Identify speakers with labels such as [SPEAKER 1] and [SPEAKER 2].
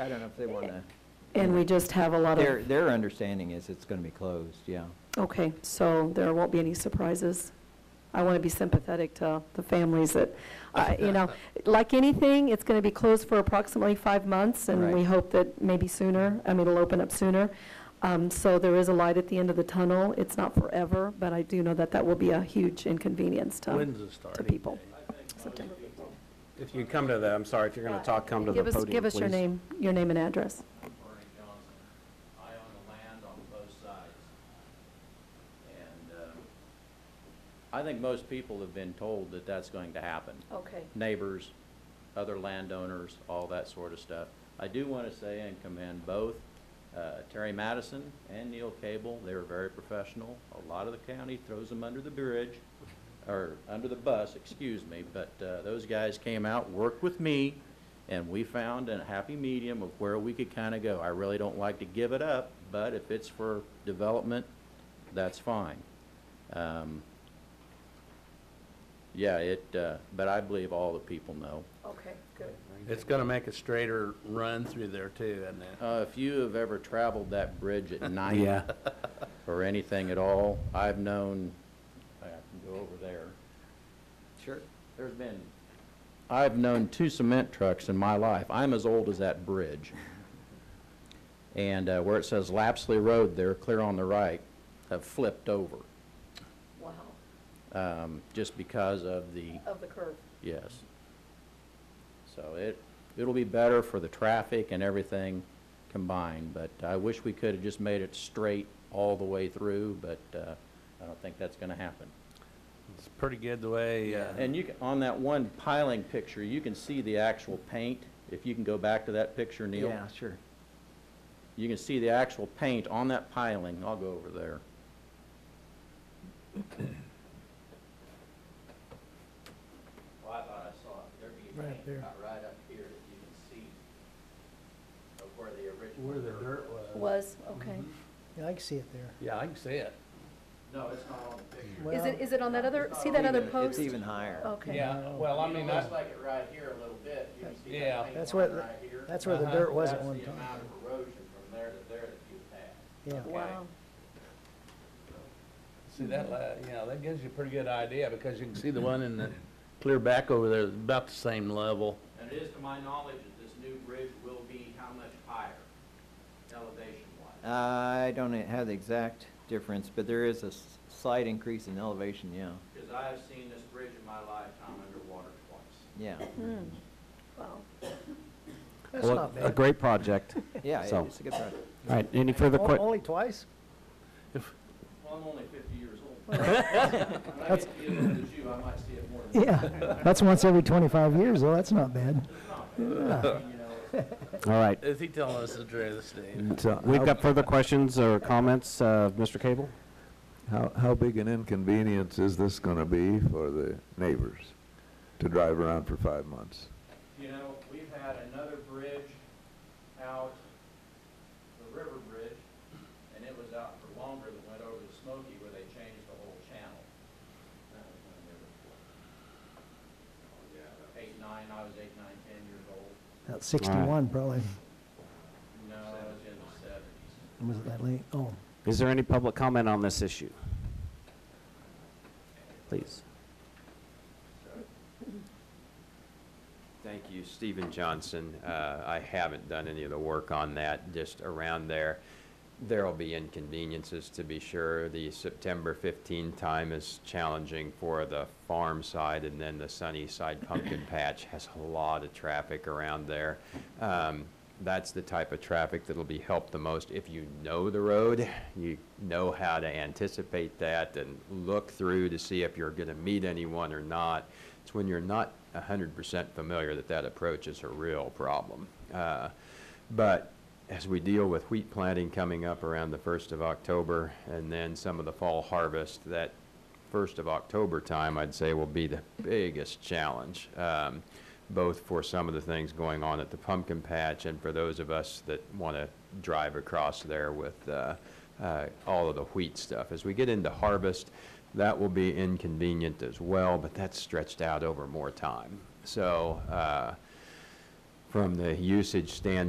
[SPEAKER 1] I don't know if they want to,
[SPEAKER 2] And we just have a lot
[SPEAKER 1] their,
[SPEAKER 2] of,
[SPEAKER 1] their understanding is it's going to be closed, yeah.
[SPEAKER 2] okay, so there won't be any surprises. I want to be sympathetic to the families that, uh, you know, like anything, it's going to be closed for approximately five months, and we
[SPEAKER 1] Right.
[SPEAKER 2] hope that maybe sooner, I mean, it'll open up sooner. Um, So there is a light at the end of the tunnel. It's not forever, but I do know that that will be a huge inconvenience to,
[SPEAKER 3] When's the
[SPEAKER 2] to
[SPEAKER 3] starting
[SPEAKER 2] people.
[SPEAKER 3] date?
[SPEAKER 2] September.
[SPEAKER 4] If you come to the, I'm sorry, if you're going to talk, come to the
[SPEAKER 2] Give us,
[SPEAKER 4] podium, please.
[SPEAKER 2] give us your name, your name and address.
[SPEAKER 5] Bernie Johnson. I own the land on both sides. And um, I think most people have been told that that's going to happen.
[SPEAKER 2] Okay.
[SPEAKER 5] Neighbors, other landowners, all that sort of stuff. I do want to say and commend both uh, Terry Madison and Neil Cable. They were very professional. A lot of the county throws them under the bridge, or under the bus, excuse me. But uh, those guys came out, worked with me, and we found a happy medium of where we could kind of go. I really don't like to give it up, but if it's for development, that's fine. Um, Yeah, it, uh, but I believe all the people know.
[SPEAKER 2] Okay, good.
[SPEAKER 3] It's going to make a straighter run through there too, isn't it?
[SPEAKER 5] Uh, If you have ever traveled that bridge at night. Or anything at all, I've known, I can go over there. Sure. There's been, I've known two cement trucks in my life. I'm as old as that bridge. And uh, where it says Lapsley Road there, clear on the right, have flipped over,
[SPEAKER 2] Wow,
[SPEAKER 5] um, just because of the,
[SPEAKER 2] of the curve.
[SPEAKER 5] yes. So it, it'll be better for the traffic and everything combined, but I wish we could have just made it straight all the way through, but uh, I don't think that's going to happen.
[SPEAKER 3] It's pretty good the way, uh,
[SPEAKER 5] And you, can- on that one piling picture, you can see the actual paint, if you can go back to that picture, Neil.
[SPEAKER 1] Yeah, sure.
[SPEAKER 5] You can see the actual paint on that piling, I'll go over there. Well, I thought I saw it, there'd be
[SPEAKER 6] Right paint there. about
[SPEAKER 5] right up here that you can see of where the original.
[SPEAKER 3] where the dirt was.
[SPEAKER 2] Was, okay.
[SPEAKER 1] Mhm.
[SPEAKER 6] Yeah, I can see it there.
[SPEAKER 3] Yeah, I can see it.
[SPEAKER 5] No, it's not on the picture.
[SPEAKER 6] Well,
[SPEAKER 2] Is it, is it on that other, see that other post? Oh.
[SPEAKER 1] It's even higher.
[SPEAKER 2] Okay.
[SPEAKER 3] Yeah, well, I mean, I-
[SPEAKER 5] like it right here a little bit, you can see that
[SPEAKER 3] Yeah.
[SPEAKER 5] paint
[SPEAKER 6] That's
[SPEAKER 5] line
[SPEAKER 6] what-
[SPEAKER 5] right here.
[SPEAKER 6] That's where the
[SPEAKER 3] Uh-huh.
[SPEAKER 6] dirt was at
[SPEAKER 5] That's
[SPEAKER 6] one
[SPEAKER 5] the
[SPEAKER 6] time.
[SPEAKER 5] amount of erosion from there to there that you have.
[SPEAKER 6] Yeah,
[SPEAKER 2] Wow.
[SPEAKER 3] see that, la- you know, that gives you a pretty good idea because you can see the one in the clear back over there is about the same level.
[SPEAKER 5] And it is to my knowledge that this new bridge will be how much higher elevation wise?
[SPEAKER 1] I don't have the exact difference, but there is a s- slight increase in elevation, yeah,
[SPEAKER 5] Because I have seen this bridge in my lifetime underwater twice.
[SPEAKER 1] yeah,
[SPEAKER 2] Mm-hmm. Wow.
[SPEAKER 6] that's not
[SPEAKER 7] A
[SPEAKER 6] bad.
[SPEAKER 7] great project.
[SPEAKER 1] yeah,
[SPEAKER 7] So-
[SPEAKER 1] it- it's a good project.
[SPEAKER 7] All right, any further
[SPEAKER 6] O-
[SPEAKER 7] questions?
[SPEAKER 6] Only twice?
[SPEAKER 5] Well, I'm only fifty years old. When I get to be as old as you, I might see it more than
[SPEAKER 6] Yeah, that's once every 25 years, though, that's not bad.
[SPEAKER 7] All right.
[SPEAKER 3] Is he telling us the truth, Steve?
[SPEAKER 8] uh,
[SPEAKER 7] So We've got further questions or comments, uh, Mr. Cable?
[SPEAKER 8] How, how big an inconvenience is this gonna be for the neighbors to drive around for five months?
[SPEAKER 5] You know, we've had another bridge out, the river bridge, and it was out for longer than went over the Smoky where they changed the whole channel. That was when they were, oh, yeah, Eight, nine, I was eight, nine, ten years old.
[SPEAKER 6] About 61, probably.
[SPEAKER 5] No, I was in the Mm-hmm. seventies.
[SPEAKER 6] Was it that late? Oh.
[SPEAKER 7] Is there any public comment on this issue? Please.
[SPEAKER 4] Thank you, Stephen Johnson. Uh, I haven't done any of the work on that, just around there. There'll be inconveniences, to be sure. The September 15 time is challenging for the farm side, and then the sunny side pumpkin patch has a lot of traffic around there. Um, That's the type of traffic that'll be helped the most if you know the road, you know how to anticipate that, and look through to see if you're going to meet anyone or not. It's when you're not 100% familiar that that approach is a real problem. Uh, But as we deal with wheat planting coming up around the 1st of October, and then some of the fall harvest, that 1st of October time, I'd say, will be the biggest challenge, um, both for some of the things going on at the pumpkin patch and for those of us that want to drive across there with uh, uh, all of the wheat stuff. As we get into harvest, that will be inconvenient as well, but that's stretched out over more time. So uh, from the usage standpoint,